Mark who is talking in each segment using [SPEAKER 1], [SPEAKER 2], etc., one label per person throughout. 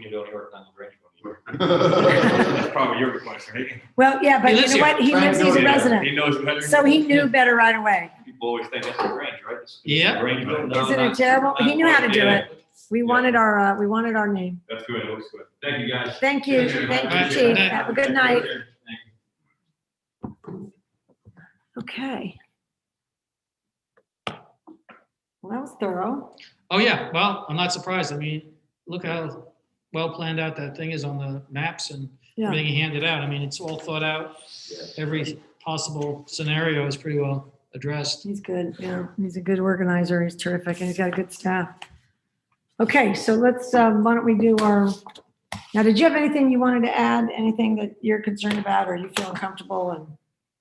[SPEAKER 1] you don't work on the bridge.
[SPEAKER 2] That's
[SPEAKER 1] That's probably your request, right?
[SPEAKER 3] Well, yeah, but
[SPEAKER 4] He
[SPEAKER 3] you
[SPEAKER 4] lives
[SPEAKER 3] know what? He
[SPEAKER 4] here.
[SPEAKER 3] lives, he's a
[SPEAKER 1] Yeah,
[SPEAKER 3] resident.
[SPEAKER 1] He knows better.
[SPEAKER 3] So he knew better right away.
[SPEAKER 1] People always think that's the range, right? It's- it's the
[SPEAKER 4] Yeah.
[SPEAKER 1] range, but no,
[SPEAKER 3] Isn't it
[SPEAKER 1] not-
[SPEAKER 3] terrible? He knew how to do
[SPEAKER 1] Yeah,
[SPEAKER 3] We wanted our, uh, we wanted our name.
[SPEAKER 1] That's good, it looks good. Thank you, guys.
[SPEAKER 3] Thank you. Thank you, Chief. Have a good night. Okay. Well, that was thorough.
[SPEAKER 4] Oh, yeah, well, I'm not surprised. I mean, look how well planned out that thing is on the maps and
[SPEAKER 3] Yeah.
[SPEAKER 4] everything he handed out. I mean, it's all thought out. Every possible scenario is pretty well addressed.
[SPEAKER 3] He's good, yeah. He's a good organizer. He's terrific and he's got a good staff. Okay, so let's, um, why don't we do our, now, did you have anything you wanted to add? Anything that you're concerned about or you feel comfortable and?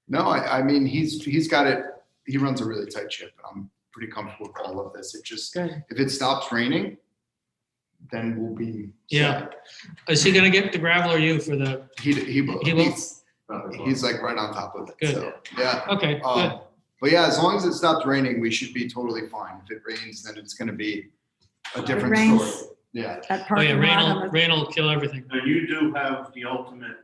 [SPEAKER 2] No, I, I mean, he's, he's got it, he runs a really tight ship. I'm pretty comfortable with all of this. It just,
[SPEAKER 3] Good.
[SPEAKER 2] if it stops raining, then we'll be.
[SPEAKER 4] Yeah. Is he gonna get the gravel or you for the,
[SPEAKER 2] He, he will.
[SPEAKER 4] He will?
[SPEAKER 2] He's, he's like right on top of it,
[SPEAKER 4] Good.
[SPEAKER 2] so, yeah.
[SPEAKER 4] okay,
[SPEAKER 5] Oh.
[SPEAKER 4] good.
[SPEAKER 2] Um, But yeah, as long as it stops raining, we should be totally fine. If it rains, then it's gonna be a
[SPEAKER 3] It
[SPEAKER 2] different story.
[SPEAKER 3] rains
[SPEAKER 2] Yeah,
[SPEAKER 3] at
[SPEAKER 4] Oh, yeah,
[SPEAKER 3] parking
[SPEAKER 4] rain
[SPEAKER 3] lot.
[SPEAKER 4] will,
[SPEAKER 3] on the-
[SPEAKER 4] rain will kill everything.
[SPEAKER 5] Now, you do have the ultimate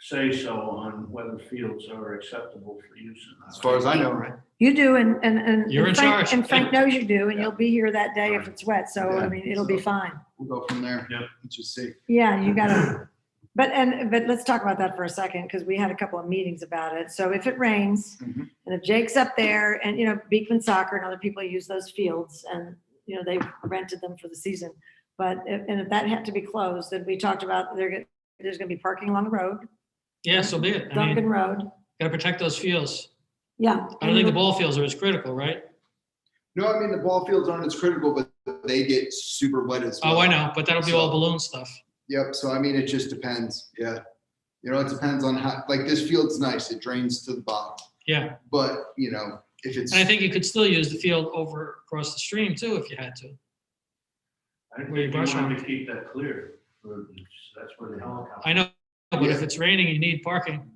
[SPEAKER 5] say-so on whether fields are acceptable for use or not.
[SPEAKER 2] as far as I know, right?
[SPEAKER 3] You do and, and, and.
[SPEAKER 4] You're in
[SPEAKER 3] and Frank-
[SPEAKER 4] charge.
[SPEAKER 3] And Frank knows you do and you'll be here that day if it's wet. So, I
[SPEAKER 2] Yeah.
[SPEAKER 3] mean, it'll be fine.
[SPEAKER 2] We'll go from there.
[SPEAKER 5] Yeah.
[SPEAKER 2] Let's just see.
[SPEAKER 3] Yeah, you gotta, but, and, but let's talk about that for a second, because we had a couple of meetings about it. So if it rains, and
[SPEAKER 2] Mhm.
[SPEAKER 3] if Jake's up there, and, you know, Beekman Soccer and other people use those fields, and, you know, they rented them for the season. But, if- and if that had to be closed, then we talked about, there, get- there's gonna be parking along the road,
[SPEAKER 4] Yeah, so be it. I mean,
[SPEAKER 3] Duncan Road,
[SPEAKER 4] gotta protect those fields.
[SPEAKER 3] yeah.
[SPEAKER 4] I don't think the ball fields are as critical, right?
[SPEAKER 2] No, I mean, the ball fields aren't as critical, but they get super wet as well.
[SPEAKER 4] Oh, I know, but that'll be all balloon stuff.
[SPEAKER 2] Yep, so I mean, it just depends, yeah. You know, it depends on how, like, this field's nice, it drains to the bottom,
[SPEAKER 4] Yeah,
[SPEAKER 2] but, you know, if it's,
[SPEAKER 4] and I think you could still use the field over across the stream too, if you had to.
[SPEAKER 5] I
[SPEAKER 4] Where you
[SPEAKER 5] think you
[SPEAKER 4] brush
[SPEAKER 5] want
[SPEAKER 4] on.
[SPEAKER 5] to keep that clear. for- That's where the helicopter.
[SPEAKER 4] I know, but if it's raining, you need parking.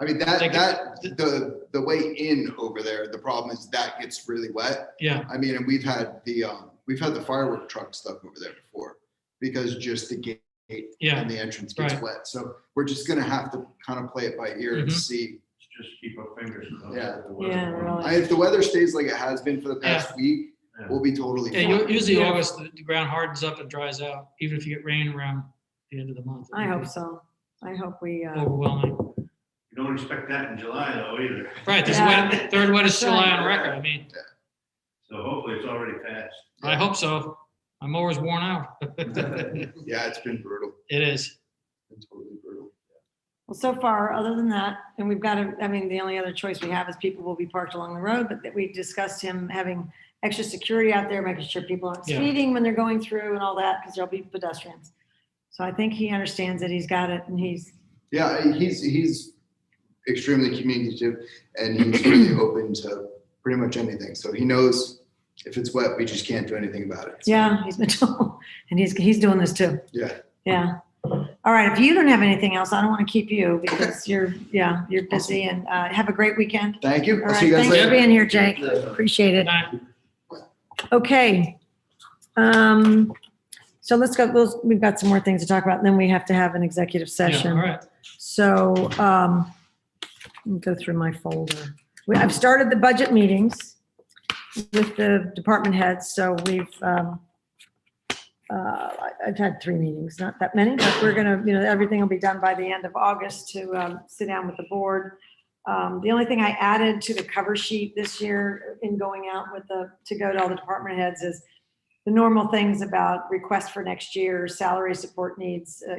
[SPEAKER 2] I mean, that,
[SPEAKER 4] Like,
[SPEAKER 2] that, the, the way in over there, the problem is that gets really wet.
[SPEAKER 4] Yeah,
[SPEAKER 2] I mean, and we've had the, um, we've had the firework truck stuck over there before, because just the gate
[SPEAKER 4] yeah.
[SPEAKER 2] and the entrance gets
[SPEAKER 4] right.
[SPEAKER 2] wet, so we're just gonna have to kind of play it by ear and
[SPEAKER 4] Mhm.
[SPEAKER 2] see.
[SPEAKER 5] Let's Just keep our fingers crossed.
[SPEAKER 2] Yeah.
[SPEAKER 3] Yeah, really.
[SPEAKER 2] I, if the weather stays like it has been for the past week, we'll be totally
[SPEAKER 4] Yeah,
[SPEAKER 2] fine.
[SPEAKER 4] u- usually
[SPEAKER 3] Yeah.
[SPEAKER 4] August, the the ground hardens up and dries out, even if you get rain around the end of the month.
[SPEAKER 3] I hope so. I hope we, uh,
[SPEAKER 4] Overwhelming.
[SPEAKER 5] You don't expect that in July though either.
[SPEAKER 4] Right, this
[SPEAKER 3] Yeah.
[SPEAKER 4] wet, third wettest July on
[SPEAKER 5] Right.
[SPEAKER 4] record. I mean,
[SPEAKER 5] So hopefully it's already passed.
[SPEAKER 4] I hope so. My mower's worn out. It
[SPEAKER 2] Yeah, it's been brutal,
[SPEAKER 4] is.
[SPEAKER 2] It's been totally brutal.
[SPEAKER 3] Well, so far, other than that, and we've got to, I mean, the only other choice we have is people will be parked along the road, but that we discussed him having extra security out there, making sure people aren't
[SPEAKER 4] Yeah.
[SPEAKER 3] speeding when they're going through and all that, because there'll be pedestrians. So I think he understands that he's got it and he's,
[SPEAKER 2] Yeah, he's, he's extremely communicative and he's really open to pretty much anything. So he knows if it's wet, we just can't do anything about it. So,
[SPEAKER 3] yeah, he's been told, and he's, he's doing this too.
[SPEAKER 2] Yeah.
[SPEAKER 3] Yeah. All right, if you don't have anything else, I don't want to keep you because you're, yeah, you're busy and uh, have a great weekend.
[SPEAKER 2] Thank
[SPEAKER 3] All
[SPEAKER 2] you. I'll
[SPEAKER 3] right,
[SPEAKER 2] see you guys
[SPEAKER 3] thanks for
[SPEAKER 2] later.
[SPEAKER 3] being here, Jake. Appreciate it.
[SPEAKER 4] And I-
[SPEAKER 3] Okay. Um, so let's go, we'll- we've got some more things to talk about, and then we have to have an executive
[SPEAKER 4] yeah, All
[SPEAKER 3] session.
[SPEAKER 4] right.
[SPEAKER 3] So, um, let me go through my folder. We- I've started the budget meetings with the department heads, so we've, um, uh, I- I've had three meetings, not that many, but we're gonna, you know, everything will be done by the end of August to, um, sit down with the board. Um, the only thing I added to the cover sheet this year in going out with the, to go to all the department heads is the normal things about requests for next year, salary support needs, uh,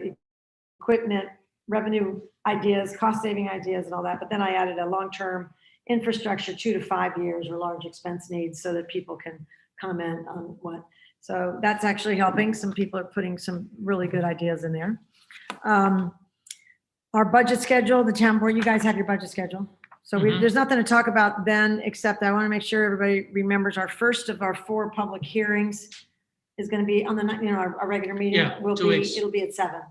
[SPEAKER 3] equipment, revenue ideas, cost saving ideas and all that. But then I added a long-term infrastructure, two to five years or large expense needs so that people can comment on what. So that's actually helping. Some people are putting some really good ideas in there. Um, Our budget schedule, the town board, you guys have your budget schedule. So we,
[SPEAKER 4] Mhm.
[SPEAKER 3] there's nothing to talk about then, except I want to make sure everybody remembers our first of our four public hearings is going to be on the, ni- you know, our, our regular meeting
[SPEAKER 4] Yeah,
[SPEAKER 3] will
[SPEAKER 4] two
[SPEAKER 3] be,
[SPEAKER 4] weeks. Mhm.
[SPEAKER 3] it'll be at seven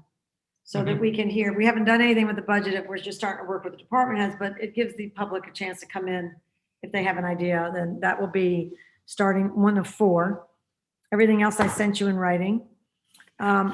[SPEAKER 3] so that we can hear. We haven't done anything with the budget. If We're just starting to work with the department heads, but it gives the public a chance to come in. If they have an idea, then that will be starting one of four. Everything else I sent you in writing. Um,